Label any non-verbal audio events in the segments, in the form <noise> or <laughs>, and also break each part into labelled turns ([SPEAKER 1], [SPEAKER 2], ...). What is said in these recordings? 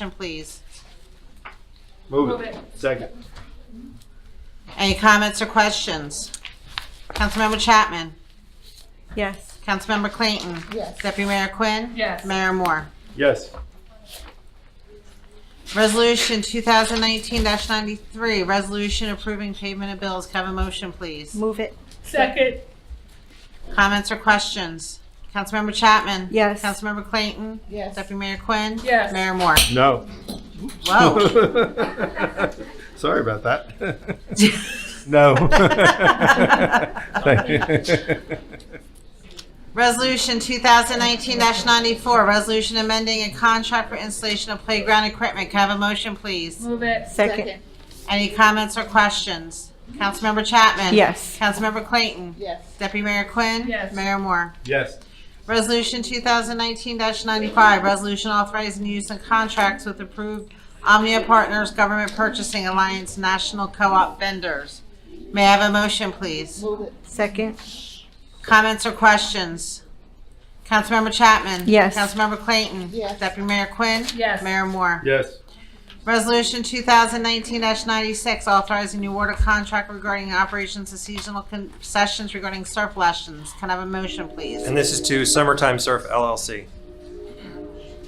[SPEAKER 1] Motion, please.
[SPEAKER 2] Move it. Second.
[SPEAKER 1] Any comments or questions? Councilmember Chapman?
[SPEAKER 3] Yes.
[SPEAKER 1] Councilmember Clayton?
[SPEAKER 4] Yes.
[SPEAKER 1] Deputy Mayor Quinn?
[SPEAKER 5] Yes.
[SPEAKER 1] Mayor Moore?
[SPEAKER 2] Yes.
[SPEAKER 1] Resolution 2019-93, resolution approving payment of bills. Can I Have a motion, please.
[SPEAKER 3] Move it.
[SPEAKER 5] Second.
[SPEAKER 1] Comments or questions? Councilmember Chapman?
[SPEAKER 3] Yes.
[SPEAKER 1] Councilmember Clayton?
[SPEAKER 4] Yes.
[SPEAKER 1] Deputy Mayor Quinn?
[SPEAKER 5] Yes.
[SPEAKER 1] Mayor Moore?
[SPEAKER 2] No.
[SPEAKER 1] Whoa.
[SPEAKER 2] <laughs>
[SPEAKER 1] <laughs>
[SPEAKER 2] Sorry about that.
[SPEAKER 1] <laughs>
[SPEAKER 2] No. <laughs> Thank you.
[SPEAKER 1] Resolution 2019-94, resolution amending a contract for installation of playground equipment. Can I have a motion, please?
[SPEAKER 5] Move it.
[SPEAKER 3] Second.
[SPEAKER 1] Any comments or questions? Councilmember Chapman?
[SPEAKER 3] Yes.
[SPEAKER 1] Councilmember Clayton?
[SPEAKER 4] Yes.
[SPEAKER 1] Deputy Mayor Quinn?
[SPEAKER 5] Yes.
[SPEAKER 1] Mayor Moore?
[SPEAKER 2] Yes.
[SPEAKER 1] Resolution 2019-95, resolution authorizing use of contracts with approved Omnia Partners Government Purchasing Alliance National Co-op vendors. May I have a motion, please?
[SPEAKER 4] Move it.
[SPEAKER 3] Second.
[SPEAKER 1] Comments or questions? Councilmember Chapman?
[SPEAKER 3] Yes.
[SPEAKER 1] Councilmember Clayton?
[SPEAKER 4] Yes.
[SPEAKER 1] Deputy Mayor Quinn?
[SPEAKER 5] Yes.
[SPEAKER 1] Mayor Moore?
[SPEAKER 2] Yes.
[SPEAKER 1] Resolution 2019-96, authorizing new order contract regarding operations of seasonal concessions regarding surf lessons. Can I have a motion, please?
[SPEAKER 6] And this is to Summertime Surf LLC.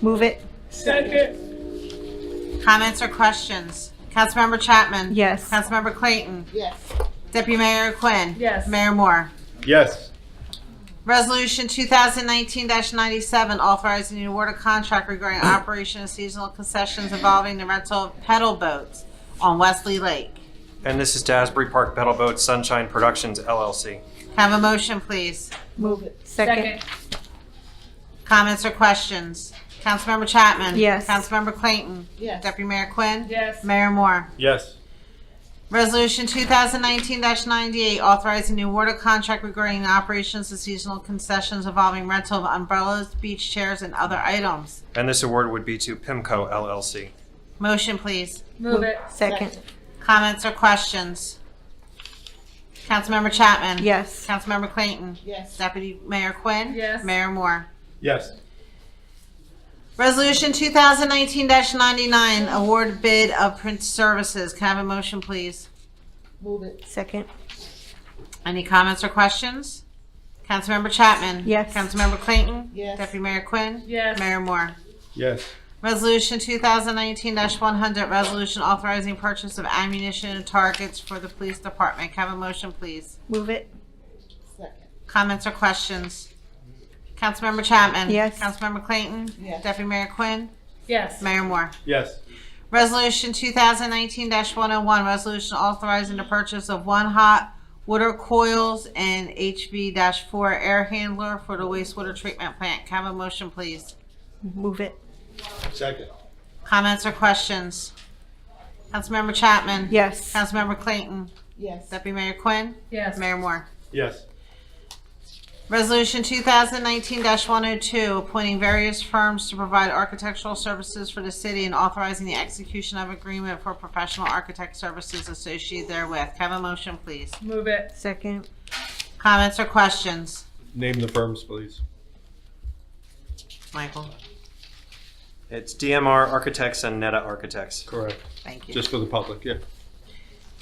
[SPEAKER 3] Move it.
[SPEAKER 5] Second.
[SPEAKER 1] Comments or questions? Councilmember Chapman?
[SPEAKER 3] Yes.
[SPEAKER 1] Councilmember Clayton?
[SPEAKER 4] Yes.
[SPEAKER 1] Deputy Mayor Quinn?
[SPEAKER 5] Yes.
[SPEAKER 1] Mayor Moore?
[SPEAKER 2] Yes.
[SPEAKER 1] Resolution 2019-97, authorizing the award of contract regarding operation of seasonal concessions involving the rental of pedal boats on Wesley Lake.
[SPEAKER 6] And this is to Asbury Park Pedal Boat Sunshine Productions LLC.
[SPEAKER 1] Have a motion, please.
[SPEAKER 4] Move it.
[SPEAKER 3] Second.
[SPEAKER 1] Comments or questions? Councilmember Chapman?
[SPEAKER 3] Yes.
[SPEAKER 1] Councilmember Clayton?
[SPEAKER 4] Yes.
[SPEAKER 1] Deputy Mayor Quinn?
[SPEAKER 5] Yes.
[SPEAKER 1] Mayor Moore?
[SPEAKER 2] Yes.
[SPEAKER 1] Resolution 2019-98, authorizing the award of contract regarding the operations of seasonal concessions involving rental of umbrellas, beach chairs, and other items.
[SPEAKER 6] And this award would be to Pimco LLC.
[SPEAKER 1] Motion, please.
[SPEAKER 5] Move it.
[SPEAKER 3] Second.
[SPEAKER 1] Comments or questions? Councilmember Chapman?
[SPEAKER 3] Yes.
[SPEAKER 1] Councilmember Clayton?
[SPEAKER 4] Yes.
[SPEAKER 1] Deputy Mayor Quinn?
[SPEAKER 5] Yes.
[SPEAKER 1] Mayor Moore?
[SPEAKER 2] Yes.
[SPEAKER 1] Resolution 2019-99, award bid of print services. Can I have a motion, please?
[SPEAKER 4] Move it.
[SPEAKER 3] Second.
[SPEAKER 1] Any comments or questions? Councilmember Chapman?
[SPEAKER 3] Yes.
[SPEAKER 1] Councilmember Clayton?
[SPEAKER 4] Yes.
[SPEAKER 1] Deputy Mayor Quinn?
[SPEAKER 5] Yes.
[SPEAKER 1] Mayor Moore?
[SPEAKER 2] Yes.
[SPEAKER 1] Resolution 2019-100, resolution authorizing purchase of ammunition and targets for the police department. Can I have a motion, please?
[SPEAKER 3] Move it.
[SPEAKER 4] Second.
[SPEAKER 1] Comments or questions? Councilmember Chapman?
[SPEAKER 3] Yes.
[SPEAKER 1] Councilmember Clayton?
[SPEAKER 4] Yes.
[SPEAKER 1] Deputy Mayor Quinn?
[SPEAKER 5] Yes.
[SPEAKER 1] Mayor Moore?
[SPEAKER 2] Yes.
[SPEAKER 1] Resolution 2019-101, resolution authorizing the purchase of one hot water coils and HV-4 air handler for the wastewater treatment plant. Can I have a motion, please?
[SPEAKER 3] Move it.
[SPEAKER 2] Second.
[SPEAKER 1] Comments or questions? Councilmember Chapman?
[SPEAKER 3] Yes.
[SPEAKER 1] Councilmember Clayton?
[SPEAKER 4] Yes.
[SPEAKER 1] Deputy Mayor Quinn?
[SPEAKER 5] Yes.
[SPEAKER 1] Mayor Moore?
[SPEAKER 2] Yes.
[SPEAKER 1] Resolution 2019-102, appointing various firms to provide architectural services for the city and authorizing the execution of agreement for professional architect services associated therewith. Can I Have a motion, please.
[SPEAKER 5] Move it.
[SPEAKER 3] Second.
[SPEAKER 1] Comments or questions?
[SPEAKER 2] Name the firms, please.
[SPEAKER 1] Michael,
[SPEAKER 6] It's DMR Architects and Netta Architects.
[SPEAKER 2] Correct.
[SPEAKER 1] thank you.
[SPEAKER 2] Just for the public, yeah.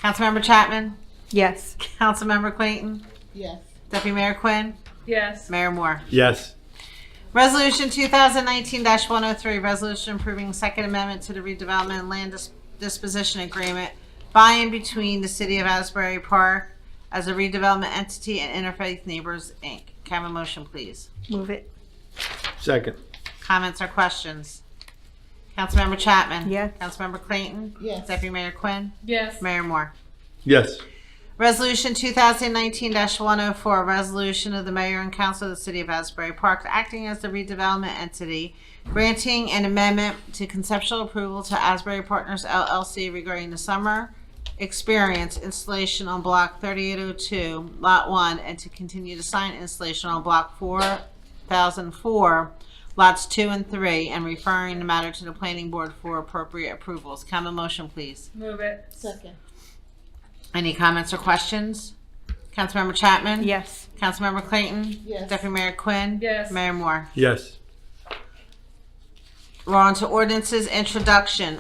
[SPEAKER 1] Councilmember Chapman?
[SPEAKER 3] Yes.
[SPEAKER 1] Councilmember Clayton?
[SPEAKER 4] Yes.
[SPEAKER 1] Deputy Mayor Quinn?
[SPEAKER 5] Yes.
[SPEAKER 1] Mayor Moore?
[SPEAKER 2] Yes.
[SPEAKER 1] Resolution 2019-103, resolution approving Second Amendment to the redevelopment and land Dis- disposition agreement by and between the City of Asbury Park as a redevelopment entity and Interfaith Neighbors, Inc. Can I have a motion, please?
[SPEAKER 3] Move it.
[SPEAKER 2] Second.
[SPEAKER 1] Comments or questions? Councilmember Chapman?
[SPEAKER 3] Yes.
[SPEAKER 1] Councilmember Clayton?
[SPEAKER 4] Yes.
[SPEAKER 1] Deputy Mayor Quinn?
[SPEAKER 5] Yes.
[SPEAKER 1] Mayor Moore?
[SPEAKER 2] Yes.
[SPEAKER 1] Resolution 2019-104, a resolution of the mayor and council of the city of Asbury Park acting as the redevelopment entity, granting an amendment to conceptual approval to Asbury Partners LLC regarding the summer experience installation on block 3802, lot 1, and to continue to sign installation on block 4004, lots 2 and 3, and referring the matter to the planning board for appropriate approvals. Come a motion, please.
[SPEAKER 5] Move it.
[SPEAKER 4] Second.
[SPEAKER 1] Any comments or questions? Councilmember Chapman?
[SPEAKER 3] Yes.
[SPEAKER 1] Councilmember Clayton?
[SPEAKER 4] Yes.
[SPEAKER 1] Deputy Mayor Quinn?
[SPEAKER 5] Yes.
[SPEAKER 1] Mayor Moore?
[SPEAKER 2] Yes.
[SPEAKER 1] We're on to ordinances introduction.